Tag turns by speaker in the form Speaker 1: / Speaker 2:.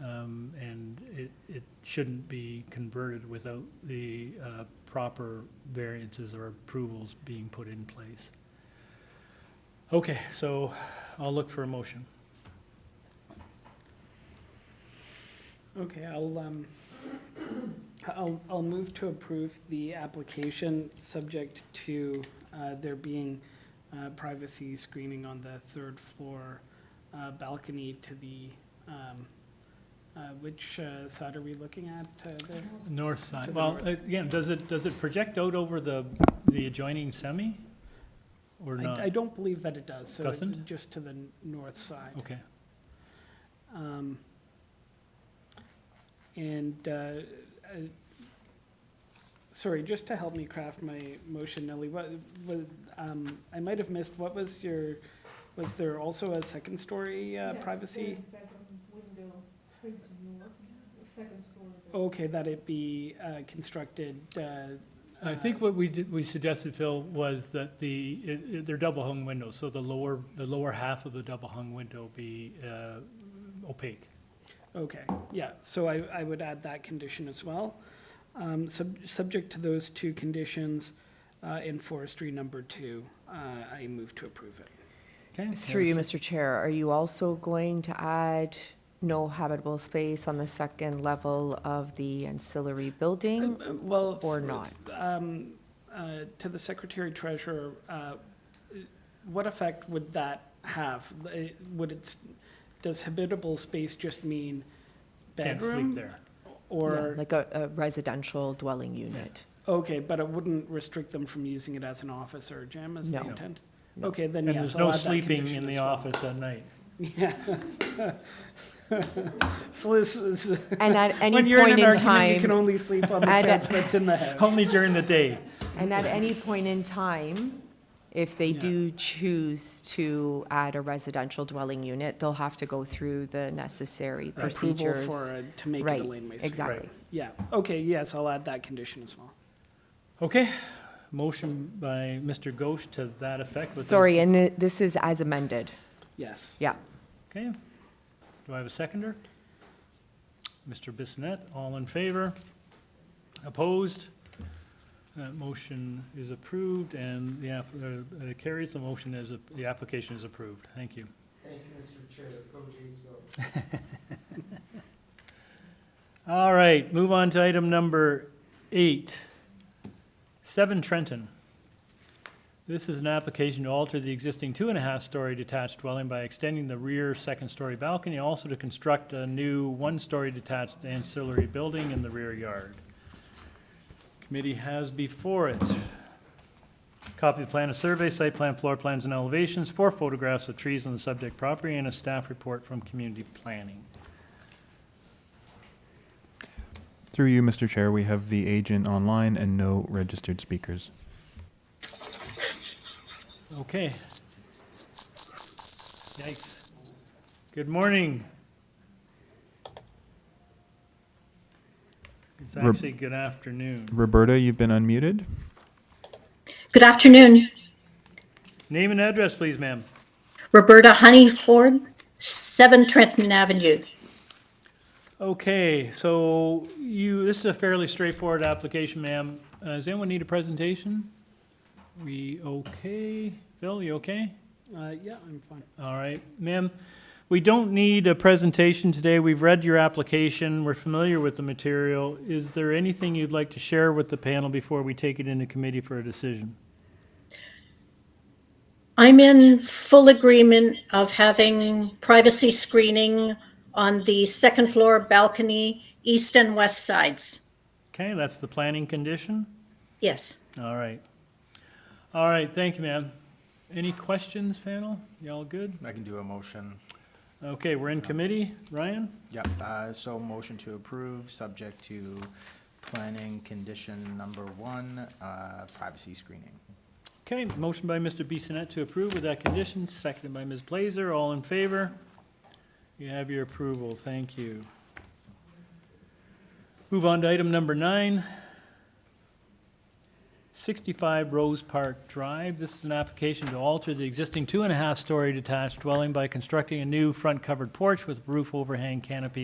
Speaker 1: Um, shouldn't be converted without the uh, proper variances or approvals being put in place. Okay, so I'll look for a motion.
Speaker 2: Okay, I'll, um, I'll, I'll move to approve the application, subject to, uh, there being, uh, privacy screening on the third floor, uh, balcony to the, um, uh, which, uh, side are we looking at, uh, there?
Speaker 1: North side,
Speaker 2: To the
Speaker 1: well,
Speaker 2: north.
Speaker 1: again, does it, does it project out over the, the adjoining semi? Or
Speaker 2: I-
Speaker 1: not?
Speaker 2: I don't believe that it does, so. it-
Speaker 1: Doesn't?
Speaker 2: Just to the n- north side.
Speaker 1: Okay,
Speaker 2: Um, And, uh, I- sorry, just to help me craft my motion, Nellie, what, what, um, I might have missed, what was your, was there also a second-story uh, privacy? Okay, that it be uh, constructed, uh,
Speaker 1: I think what we did, we suggested, Phil, was that the, it, it- they're double hung windows, so the lower, the lower half of the double hung window be uh, opaque.
Speaker 2: Okay, yeah, so I, I would add that condition as well. Um, sub, subject to those two conditions, uh, in forestry number two, uh, I move to approve it.
Speaker 1: Okay?
Speaker 3: Through you,
Speaker 1: there's-
Speaker 3: Mr. Chair, are you also going to add no habitable space on the second level of the ancillary building?
Speaker 2: Um, Well.
Speaker 3: Or
Speaker 2: f-
Speaker 3: not.
Speaker 2: f- Um, uh, to the secretary treasurer, uh, what effect would that have? Eh, Would it, s- does habitable space just mean
Speaker 1: Can't sleep
Speaker 2: bedroom?
Speaker 1: there.
Speaker 3: Yeah,
Speaker 2: Or,
Speaker 3: Like a, a residential dwelling unit?
Speaker 2: okay, but it wouldn't restrict them from using it as an office or a gym, is the
Speaker 3: No.
Speaker 2: intent?
Speaker 3: No.
Speaker 2: Okay, then
Speaker 1: And
Speaker 2: yes,
Speaker 1: there's
Speaker 2: I'll
Speaker 1: no
Speaker 2: add that
Speaker 1: sleeping
Speaker 2: condition
Speaker 1: in the
Speaker 2: as well.
Speaker 1: office at night.
Speaker 2: Yeah. So this is,
Speaker 3: And at
Speaker 2: when
Speaker 3: any
Speaker 2: you're in
Speaker 3: point
Speaker 2: an
Speaker 3: in
Speaker 2: argument, you can
Speaker 3: time,
Speaker 2: only sleep on the
Speaker 3: I'd-
Speaker 2: couch that's in the house.
Speaker 1: Only during the day.
Speaker 3: and at any point in time, if they
Speaker 2: Yeah.
Speaker 3: do choose to add a residential dwelling unit, they'll have to go through the necessary
Speaker 2: Approval
Speaker 3: procedures.
Speaker 2: for, a- to make it a
Speaker 3: Right,
Speaker 2: laneway suite.
Speaker 3: Exactly.
Speaker 2: Yeah, okay, yes, I'll add that condition as well.
Speaker 1: Okay, motion by Mr. Ghosh to that effect. with those-
Speaker 3: Sorry, and it- this is as amended.
Speaker 2: Yes.
Speaker 3: Yeah.
Speaker 1: Okay, do I have a seconder? Mr. Bissonnette, all in favor? Opposed? That motion is approved and the app, uh, uh, carries, the motion is, a- the application is approved. Thank you.
Speaker 4: Thank you, Mr. Chair, Coach Ainscow.
Speaker 1: All right, move on to item number eight. Seven Trenton. This is an application to alter the existing two-and-a-half-story detached dwelling by extending the rear second-story balcony, also to construct a new one-story detached ancillary building in the rear yard. Committee has before it copy of plan of survey, site plan, floor plans, and elevations, four photographs of trees on the subject property, and a staff report from community planning.
Speaker 5: Through you, Mr. Chair, we have the agent online and no registered speakers.
Speaker 1: Okay. Yikes. Good morning. It's
Speaker 5: Rep-
Speaker 1: actually good afternoon.
Speaker 5: Roberta, you've been unmuted.
Speaker 6: Good afternoon.
Speaker 1: Name and address, please, ma'am.
Speaker 6: Roberta Honeyford, 7 Trenton Avenue.
Speaker 1: Okay, so you, this is a fairly straightforward application, ma'am. Uh, Does anyone need a presentation? We okay? Phil, you okay?
Speaker 2: Uh, yeah, I'm fine.
Speaker 1: All right, ma'am, we don't need a presentation today. We've read your application. We're familiar with the material. Is there anything you'd like to share with the panel before we take it into committee for a decision?
Speaker 6: I'm in full agreement of having privacy screening on the second floor balcony, east and west sides.
Speaker 1: Okay, that's the planning condition.
Speaker 6: Yes.
Speaker 1: All right. All right, thank you, ma'am. Any questions, panel? Y'all good?
Speaker 7: I can do a motion.
Speaker 1: Okay, we're in committee. Ryan?
Speaker 7: Yep, uh, so motion to approve, subject to planning condition number one, uh, privacy screening.
Speaker 1: Okay, motion by Mr. Bissonnette to approve with that condition, seconded by Ms. Blazer. All in favor? You have your approval. Thank you. Move on to item number nine. 65 Rose Park Drive. This is an application to alter the existing two-and-a-half-story detached dwelling by constructing a new front covered porch with roof overhang canopy